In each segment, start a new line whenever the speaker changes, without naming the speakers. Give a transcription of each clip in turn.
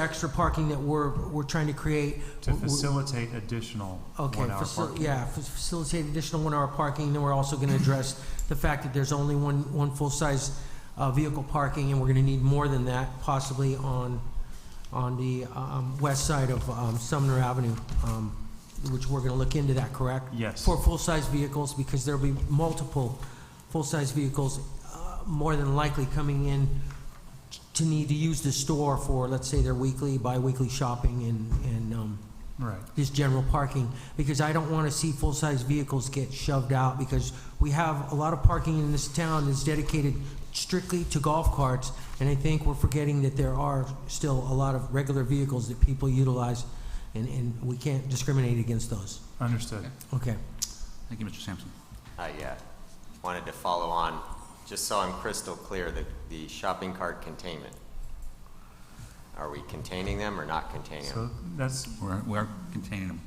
extra parking that we're, we're trying to create.
To
w- w-
facilitate additional
Okay,
one-hour
faci-
parking.
yeah, fa- facilitate additional one-hour parking, then we're also gonna address the fact that there's only one, one full-size, uh, vehicle parking, and we're gonna need more than that possibly on, on the, um, west side of, um, Sumner Avenue, um, which we're gonna look into that, correct?
Yes,
For full-size vehicles, because there'll be multiple full-size vehicles, uh, more than likely coming in to need to use the store for, let's say, their weekly, bi-weekly shopping and, and, um,
right.
this general parking, because I don't want to see full-size vehicles get shoved out, because we have a lot of parking in this town that's dedicated strictly to golf carts, and I think we're forgetting that there are still a lot of regular vehicles that people utilize, and, and we can't discriminate against those.
Understood.
Okay.
Thank you, Mr. Sampson.
I uh, wanted to follow on, just so I'm crystal clear, that the shopping cart containment, are we containing them or not containing them?
So that's,
We're, we are containing them.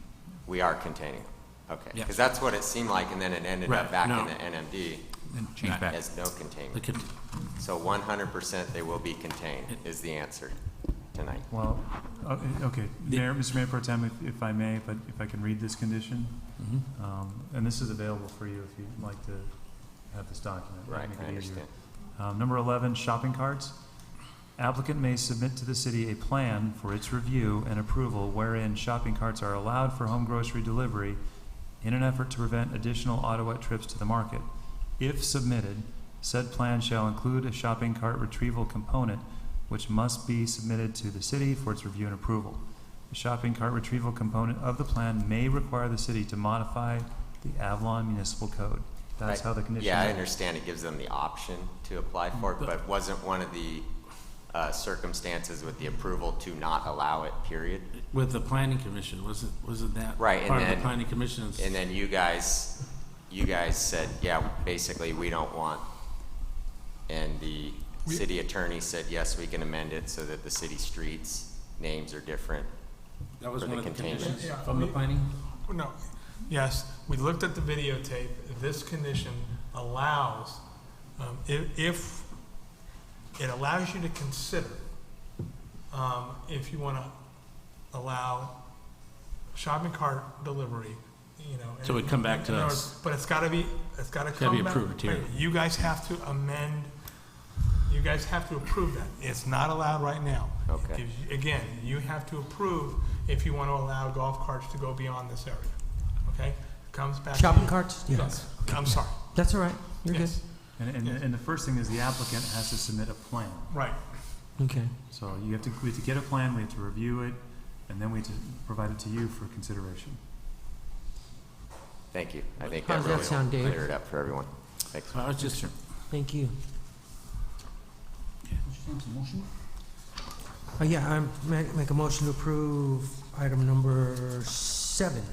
We are containing them, okay.
Yeah.
Because that's what it seemed like, and then it ended up
Right,
back
no.
in the NMD
Then change back.
as no
The
containment.
con-
So 100% they will be contained, is the answer tonight.
well, uh, okay,
The-
Mayor, Mr. Mayor Pro Tem, if- if I may, if I, if I can read this condition,
Mhm.
Mm-hmm.
um, and this is available for you if you'd like to have this document.
Right,
Make it
I
easier.
understand.
Um, Number 11, shopping carts. Applicant may submit to the city a plan for its review and approval wherein shopping carts are allowed for home grocery delivery in an effort to prevent additional Ottawa trips to the market. If submitted, said plan shall include a shopping cart retrieval component which must be submitted to the city for its review and approval. The shopping cart retrieval component of the plan may require the city to modify the Avalon Municipal Code. That's
Right.
how the condition.
Yeah, I
reads.
understand it gives them the option to apply for it, but wasn't one of the uh, circumstances with the approval to not allow it, period?
With the planning commission, wasn't, wasn't that?
Right, and
Part of the
then-
planning commission's,
And then you guys, you guys said, yeah, basically, we don't want, and the city attorney said, yes, we can amend it so that the city streets' names are different.
that was
for
one
the
of the
containment.
conditions
Yeah.
from the planning?
No, yes, we looked at the videotape. This condition allows, um, if, if, it allows you to consider, um, if you wanna allow shopping cart delivery, you know.
So it'd come back to
in other
us.
words, But it's gotta be, it's gotta
Gotta be
come back.
approved here.
Wait, You guys have to amend, you guys have to approve that. It's not allowed right now.
Okay.
If- Again, you have to approve if you want to allow golf carts to go beyond this area, okay? Comes back. to
Shopping
you.
carts? Yeah.
Yes, I'm sorry,
That's all right. You're good.
yes,
And, and, and the first thing is the applicant has to submit a plan.
right,
Okay.
So you have to, we have to get a plan, we have to review it, and then we have to provide it to you for consideration.
Thank you. I think
How does
that
that
really
sound, Dave?
cleared it up for everyone. Thanks.
I was just,
Thank you.
Mr. Sampson, motion?
Uh, yeah, I'm, make, make a motion to approve item number seven.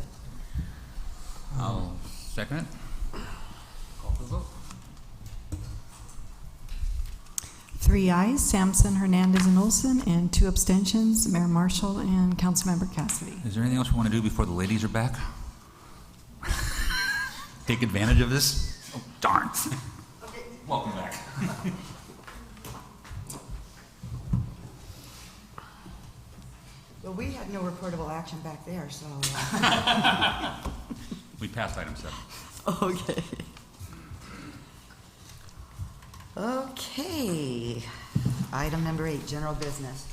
I'll second it. Call for the vote.
Three ayes, Sampson, Hernandez, and Olson, and two abstentions, Mayor Marshall and Councilmember Cassidy.
Is there anything else we want to do before the ladies are back? Take advantage of this? Oh, darn. Welcome back.
Well, we had no reportable action back there, so. uh,
We passed item seven.
Okay. Okay. Item number eight, general business.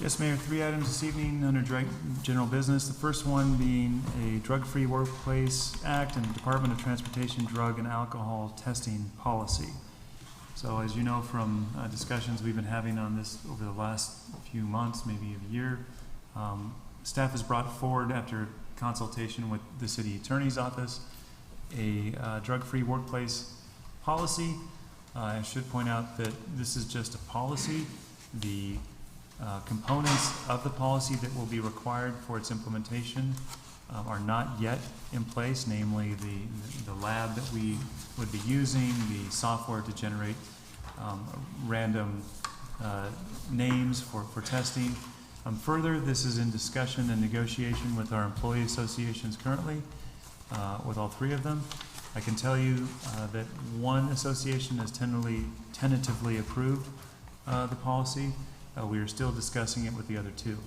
Yes, Mayor, three items this evening under drug, general business. The first one being a Drug-Free Workplace Act and Department of Transportation Drug and Alcohol Testing Policy. So as you know from uh, discussions we've been having on this over the last few months, maybe a year, um, staff has brought forward after consultation with the city attorney's office, a uh, drug-free workplace policy. Uh, I should point out that this is just a policy. The uh, components of the policy that will be required for its implementation um, are not yet in place, namely the, the lab that we would be using, the software to generate um, random uh, names for, for testing. Um, Further, this is in discussion and negotiation with our employee associations currently, uh, with all three of them. I can tell you uh, that one association has tentatively, tentatively approved uh, the policy. Uh, We are still discussing it with the other two.